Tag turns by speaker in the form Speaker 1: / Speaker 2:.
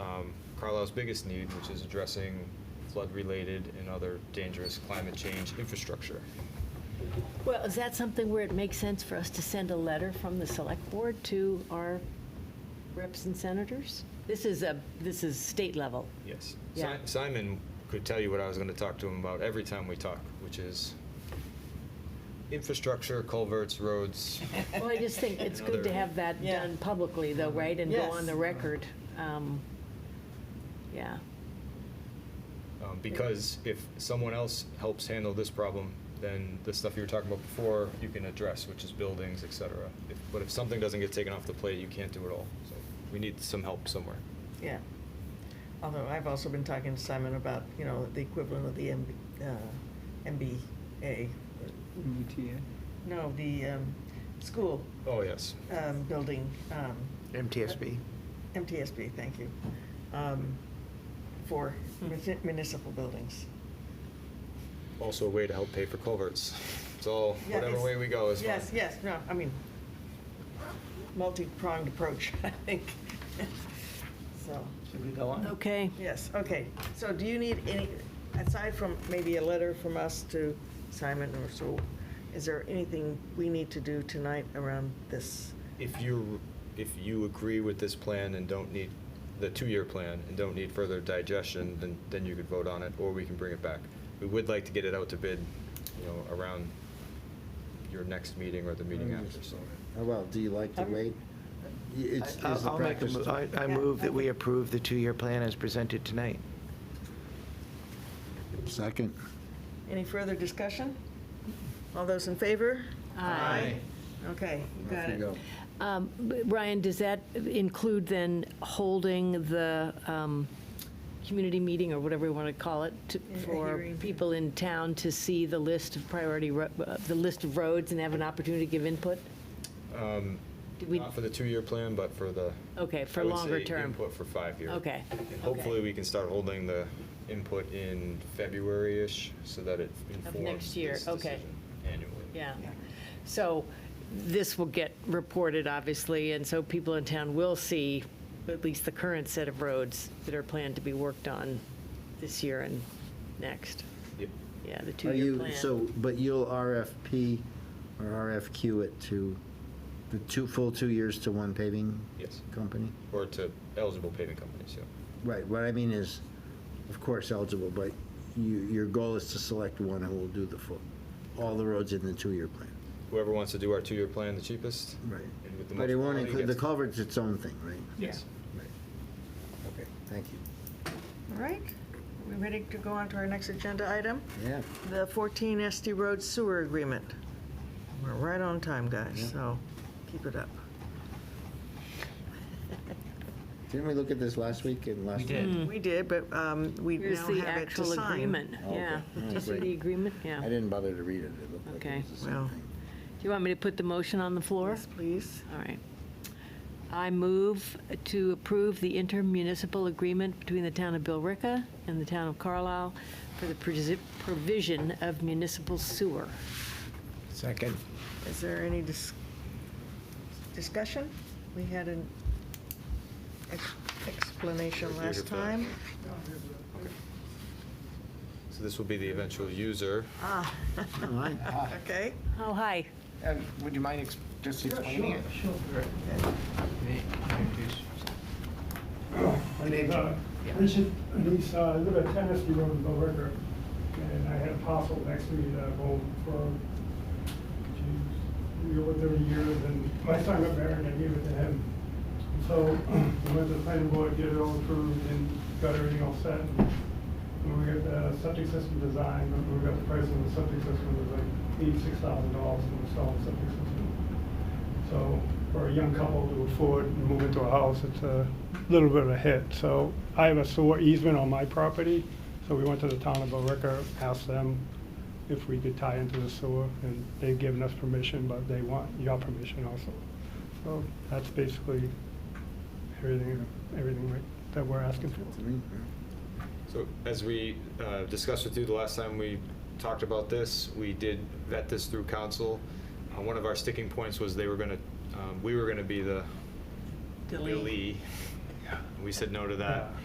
Speaker 1: Um, Carlisle's biggest need, which is addressing flood-related and other dangerous climate change infrastructure.
Speaker 2: Well, is that something where it makes sense for us to send a letter from the select board to our reps and senators? This is a, this is state level.
Speaker 1: Yes. Si-
Speaker 2: Yeah.
Speaker 1: Simon could tell you what I was going to talk to him about every time we talk, which is infrastructure, culverts, roads.
Speaker 2: Well, I just think it's good to have that
Speaker 3: Yeah.
Speaker 2: done publicly though, right? And go on
Speaker 3: Yes.
Speaker 2: the record. Um, Yeah.
Speaker 1: Um, Because if someone else helps handle this problem, then the stuff you were talking about before, you can address, which is buildings, et cetera. If- But if something doesn't get taken off the plate, you can't do it all. So we need some help somewhere.
Speaker 3: Yeah. Although I've also been talking to Simon about, you know, the equivalent of the MB, uh, MBA.
Speaker 4: E
Speaker 5: MBTA.
Speaker 3: uh, No, the, um, school,
Speaker 1: Oh, yes.
Speaker 3: um, building, um. uh,
Speaker 4: MTSB.
Speaker 3: MTSB, thank you. Um, for
Speaker 1: Hmm.
Speaker 3: muni- municipal buildings.
Speaker 1: Also a way to help pay for culverts. It's all,
Speaker 3: Yeah,
Speaker 1: whatever
Speaker 3: it's-
Speaker 1: way we go is fine.
Speaker 3: Yes, yes, no, I mean, multi-pronged approach, I think. So,
Speaker 5: Should we go on?
Speaker 2: Okay.
Speaker 3: yes, okay. So do you need any, aside from maybe a letter from us to Simon or so, is there anything we need to do tonight around this?
Speaker 1: If you, if you agree with this plan and don't need, the two-year plan, and don't need further digestion, then, then you could vote on it, or we can bring it back. We would like to get it out to bid, you know, around your next meeting or the meeting after, so.
Speaker 6: How about, do you like to
Speaker 3: I'm-
Speaker 6: wait? It's,
Speaker 4: I-
Speaker 6: is the
Speaker 4: I'll make a
Speaker 6: practice
Speaker 4: mo-
Speaker 6: to-
Speaker 4: I I move that we approve the two-year plan as presented tonight.
Speaker 6: Second.
Speaker 3: Any further discussion? All those in favor?
Speaker 2: Aye.
Speaker 3: Okay, you got
Speaker 6: Off you
Speaker 3: it.
Speaker 6: go.
Speaker 2: Um, but Ryan, does that include then holding the um, community meeting, or whatever we want to call it, to-
Speaker 3: Yeah,
Speaker 2: for
Speaker 3: hearing.
Speaker 2: people in town to see the list of priority, ro- uh, the list of roads and have an opportunity to give input?
Speaker 1: Um,
Speaker 2: Did we-
Speaker 1: Not for the two-year plan, but for the.
Speaker 2: Okay, for
Speaker 1: I would
Speaker 2: longer
Speaker 1: say
Speaker 2: term.
Speaker 1: Input for five years.
Speaker 2: Okay, okay.
Speaker 1: Hopefully, we can start holding the input in February-ish, so that it
Speaker 2: next
Speaker 1: informs
Speaker 2: year,
Speaker 1: this
Speaker 2: okay.
Speaker 1: decision annually.
Speaker 2: Yeah. So this will get reported, obviously, and so people in town will see at least the current set of roads that are planned to be worked on this year and next.
Speaker 1: Yep.
Speaker 2: Yeah, the
Speaker 6: Are
Speaker 2: two-year
Speaker 6: you,
Speaker 2: plan.
Speaker 6: so, but you'll RFP or RFQ it to the two, full two years to one paving?
Speaker 1: Yes.
Speaker 6: Company?
Speaker 1: Or to eligible paving companies, yeah.
Speaker 6: Right, what I mean is, of course eligible, but you, your goal is to select one who will do the full, all the roads in the two-year plan.
Speaker 1: Whoever wants to do our two-year plan the cheapest.
Speaker 6: Right.
Speaker 1: and with the
Speaker 6: But
Speaker 1: most
Speaker 6: it won't
Speaker 1: quality
Speaker 6: include, the
Speaker 1: gets-
Speaker 6: culvert's its own thing, right?
Speaker 1: Yes.
Speaker 6: Right. Okay, thank you.
Speaker 3: All right, we ready to go on to our next agenda item?
Speaker 6: Yeah.
Speaker 3: The 14 SD Road Sewer Agreement. We're right on time, guys, so keep it up.
Speaker 6: Didn't we look at this last week and last?
Speaker 5: We
Speaker 6: month?
Speaker 5: did.
Speaker 3: We did, but um, we
Speaker 2: Hmm. Here's
Speaker 3: now
Speaker 2: the
Speaker 3: have it to
Speaker 2: actual
Speaker 3: sign.
Speaker 2: agreement,
Speaker 6: Oh,
Speaker 2: yeah.
Speaker 6: okay.
Speaker 2: Do you see
Speaker 6: Great.
Speaker 2: the agreement? Yeah.
Speaker 6: I
Speaker 2: Do
Speaker 6: didn't bother to read it. It looked like
Speaker 2: Okay.
Speaker 6: it was the
Speaker 3: Well.
Speaker 6: same thing.
Speaker 2: you want me to put the motion on the floor?
Speaker 3: Yes, please.
Speaker 2: All right. I move to approve the intermunicipal agreement between the town of Billerica and the town of Carlisle for the presi- provision of municipal sewer.
Speaker 4: Second.
Speaker 3: Is there any dis- discussion? We had an ex- explanation last time.
Speaker 1: So this will be the eventual user.
Speaker 3: Okay,
Speaker 2: Oh, hi.
Speaker 4: Um, Would you mind ex- just explaining it?
Speaker 7: My name's Richard Anissa, uh, I live at Tennessee Road in Bell River, and I had a parcel next to me that I've owned for, geez, over thirty years, and my son got married, and I gave it to him. So, we went to the planning board, get it all approved, and got everything all set, and we got the septic system designed, and we got the price of the septic system, it was like eighty-six thousand dollars to install the septic system. So for a young couple to afford and move into a house, it's a little bit of a hit. So I have a sewer easement on my property, so we went to the town of Billerica, asked them if we could tie into the sewer, and they've given us permission, but they want your permission also. So that's basically everything, everything right- that we're asking for.
Speaker 6: To me, yeah.
Speaker 1: So as we uh, discussed with you the last time we talked about this, we did vet this through council. Uh, One of our sticking points was they were um, going to, we were going to be the. Delete. We said no to that.